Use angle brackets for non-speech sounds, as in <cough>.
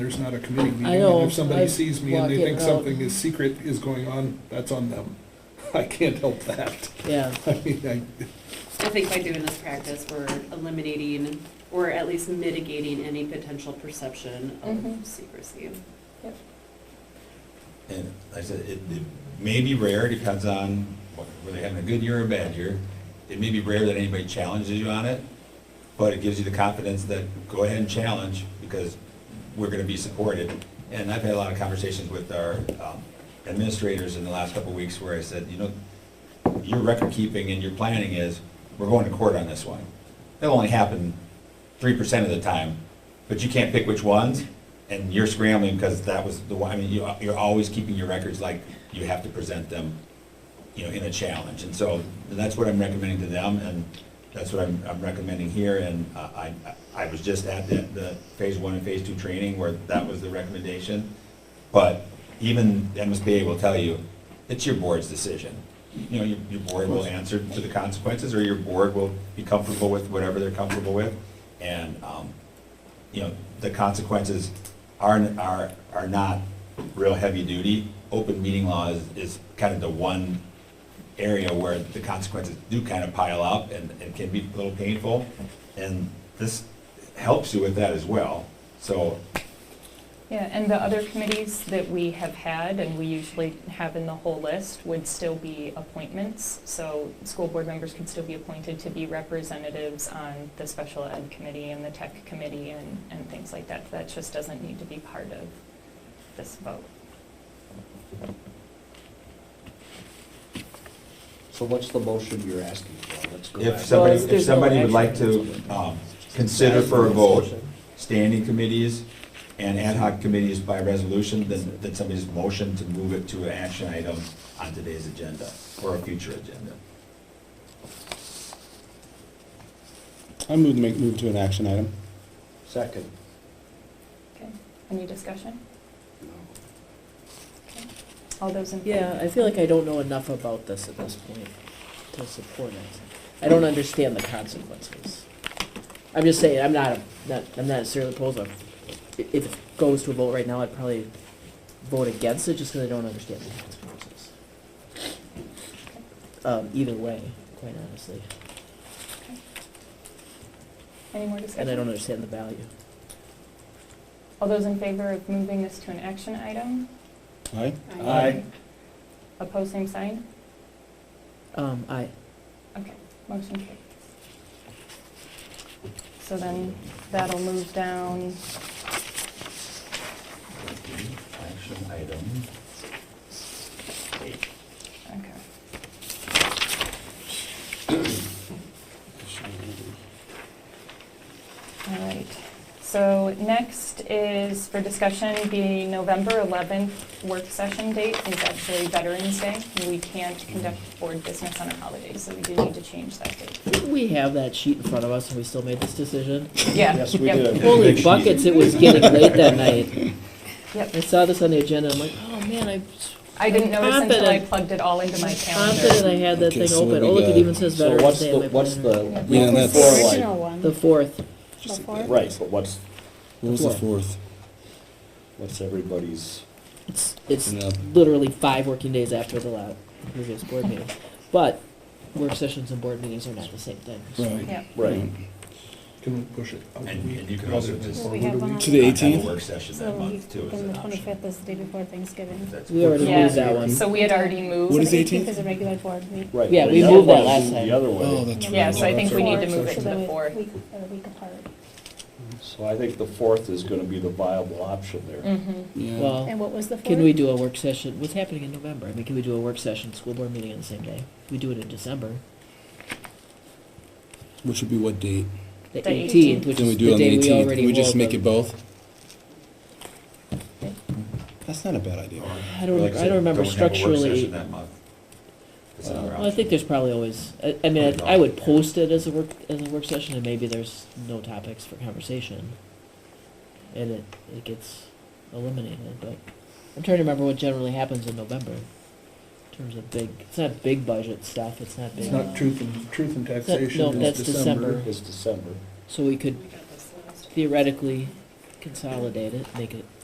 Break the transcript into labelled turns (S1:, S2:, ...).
S1: There's not a committee meeting,
S2: I
S1: and
S2: know,
S1: if somebody
S2: I
S1: sees me and they
S2: block it
S1: think
S2: out.
S1: something is secret is going on, that's on them. <laughs> I can't help that. <laughs>
S2: Yeah,
S1: I mean, I,
S3: I think by doing this practice, we're eliminating or at least mitigating any potential perception
S4: Mhm.
S3: of secrecy.
S5: And like I said, it, it may be rare, depends on what- whether you're having a good year or a bad year. It may be rare that anybody challenges you on it, but it gives you the confidence that go ahead and challenge because we're gonna be supported. And I've had a lot of conversations with our um, administrators in the last couple of weeks where I said, you know, your record keeping and your planning is, we're going to court on this one. That'll only happen three percent of the time, but you can't pick which ones, and you're scrambling because that was the one, I mean, you, you're always keeping your records like you have to present them, you know, in a challenge, and so that's what I'm recommending to them, and that's what I'm, I'm recommending here, and uh, I, I was just at the, the phase one and phase two training where that was the recommendation, but even MSBA will tell you, it's your board's decision. You know, your, your board will answer to the consequences, or your board will be comfortable with whatever they're comfortable with. And, um, you know, the consequences are, are, are not real heavy duty. Open meeting law is, is kind of the one area where the consequences do kind of pile up and, and can be a little painful. And this helps you with that as well. So
S4: Yeah, and the other committees that we have had, and we usually have in the whole list, would still be appointments. So school board members could still be appointed to be representatives on the special ed committee and the tech committee and, and things like that. That just doesn't need to be part of this vote.
S6: So what's the motion you're asking for? Let's go
S5: if
S6: back.
S5: somebody,
S2: Well,
S5: if
S2: there's no
S5: somebody would
S2: action.
S5: like to, um, consider for a vote, standing committees and ad hoc committees by resolution, then, then somebody's motion to move it to an action item on today's agenda or a future agenda.
S7: I move to make, move to an action item.
S6: Second.
S4: Okay, any discussion?
S6: No.
S4: Okay. All those in favor?
S2: yeah, I feel like I don't know enough about this at this point to support it. I don't understand the consequences. I'm just saying, I'm not, not, I'm not necessarily opposed, I'm- i- if it goes to a vote right now, I'd probably vote against it, just because I don't understand the consequences. Um, either way, quite honestly,
S4: Any more discussion?
S2: and I don't understand the value.
S4: All those in favor of moving this to an action item?
S7: Aye?
S6: Aye.
S4: Opposed, same sign?
S2: Um, I,
S4: Okay, motion carries. So then that'll move down,
S5: Action item. eight.
S4: okay. All right, so next is for discussion, the November 11th work session date is actually Veterans Day. We can't conduct board business on a holiday, so we do need to change that date.
S2: didn't we have that sheet in front of us and we still made this decision?
S4: Yeah.
S7: Yes, we
S4: yep,
S7: did.
S5: Big
S2: Holy
S5: sheet.
S2: buckets, it was getting late that night.
S4: Yep,
S2: I saw this on the agenda, I'm like, oh man, I
S4: I didn't notice until I
S2: Confident.
S4: plugged it all into my
S2: confident I
S4: calendar.
S2: had that
S7: Okay,
S2: thing
S7: so what
S2: open.
S7: we
S2: Oh, look, it
S7: got-
S2: even says
S6: So
S2: Veterans
S6: what's
S2: Day on
S6: the,
S2: my
S6: what's the
S2: planner.
S6: week
S7: Yeah, that's-
S6: before, like-
S8: original one.
S2: The fourth,
S6: Right, but what's,
S7: What was the fourth?
S6: what's everybody's?
S2: it's, it's
S7: Yeah.
S2: literally five working days after the last previous board meeting. But work sessions and board meetings are not the same thing.
S4: Yep.
S6: Right.
S1: can we push it? out a
S5: And-
S1: week?
S5: and you can also just-
S8: Well, we have one on-
S7: To the
S5: Not have a
S7: 18th?
S5: Work session
S8: So
S5: that
S8: the
S5: month
S8: week,
S5: too is
S8: and
S5: an
S8: the twenty-fifth
S5: option.
S8: is the day before Thanksgiving.
S5: That's-
S2: We already
S4: Yeah.
S2: moved that one.
S4: So we had already moved.
S7: What is
S8: The
S7: 18th?
S8: Is a regular board meeting.
S6: Right.
S2: Yeah,
S6: but
S2: we
S6: the
S2: moved
S6: other
S2: that
S6: one's
S2: last time.
S6: The other
S7: Oh,
S6: way.
S7: that's right.
S4: Yeah, so I
S7: Oh,
S4: think
S7: that's
S4: we
S7: right.
S4: need to
S8: Fourth,
S4: move it
S8: so
S4: to the
S8: that we-
S4: fourth.
S8: week- or week apart.
S6: So I think the fourth is gonna be the viable option there.
S4: Mhm.
S7: Yeah.
S2: Well,
S8: And what was the fourth?
S2: can we do a work session? What's happening in November? I mean, can we do a work session, school board meeting on the same day? We do it in December,
S7: Which would be what date?
S2: the
S4: The
S2: eighteenth,
S4: 18th.
S2: which
S7: Then we
S2: is
S7: do
S2: the
S7: on the
S2: day we
S7: eighteenth.
S2: already.
S7: We just
S2: rolled
S7: make
S2: the-
S7: it both? That's not a bad idea.
S2: I don't,
S5: Like
S2: I
S5: said,
S2: don't remember
S5: have a work
S2: structurally.
S5: session that month. That's
S2: Uh,
S5: another
S2: Well, I think
S5: option.
S2: there's probably always, I, I mean, I I would post it as a work, as a work session, and maybe there's no topics for conversation. And it, it gets eliminated, but I'm trying to remember what generally happens in November. In terms of big, it's not big budget stuff, it's not big. uh,
S1: It's not truth and, truth and
S2: no,
S1: taxation,
S2: that's
S1: it's December.
S2: December.
S6: It's December.
S2: So we
S3: We
S2: could
S3: got this last.
S2: theoretically consolidate it, make it